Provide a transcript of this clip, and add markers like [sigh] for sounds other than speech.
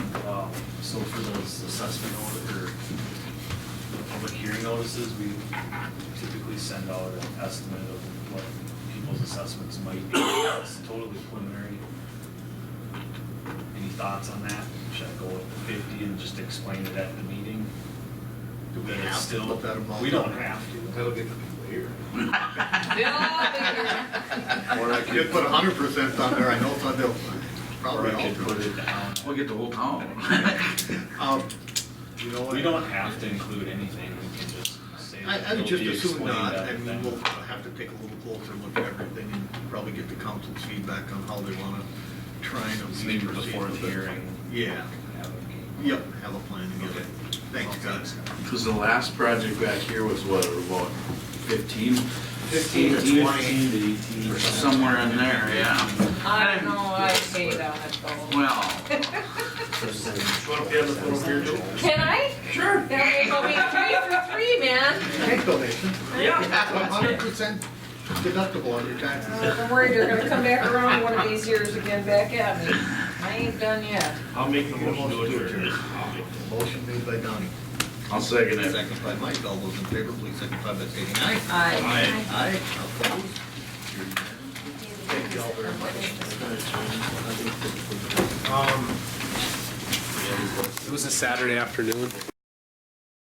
Um, assessment order, or public hearing notices, we typically send out an estimate of what people's assessments might be. It's totally preliminary. Any thoughts on that? Should I go with the fifty and just explain it at the meeting? Do we That it's have to still- put that amount We don't on? have to. That'll get the people here. Or I could put hundred percent on there, I know it's on there, Or probably I all could put true. it down. We'll get the whole town. Um, You know what? We don't have to include anything, we can just say. I, I it'll would just be assume explained not, at I mean, that. we'll have to take a little closer look at everything and probably get the council's feedback on how they wanna try and. So maybe proceed before with the it. hearing. Yeah, have a- yep, have a plan together. Thanks, guys. Because the last project back here was what, about fifteen? Fifteen to twenty. to eighteen Or Somewhere in there, yeah. I don't know, I hate on it though. Well, Put up the other photo here too. Can I? Sure. That will be three for three, man. Thank donation. [laughs] Yeah. hundred percent deductible on your taxes. I'm worried they're gonna come back around one of these years again back at me. I ain't done yet. I'll make the motion to adjourn. Motion made by Donnie. I'll second it. Second by Mike, all those in favor, please signify by stating aye. I. Aye, opposed? Thank you all very much. It was a Saturday afternoon.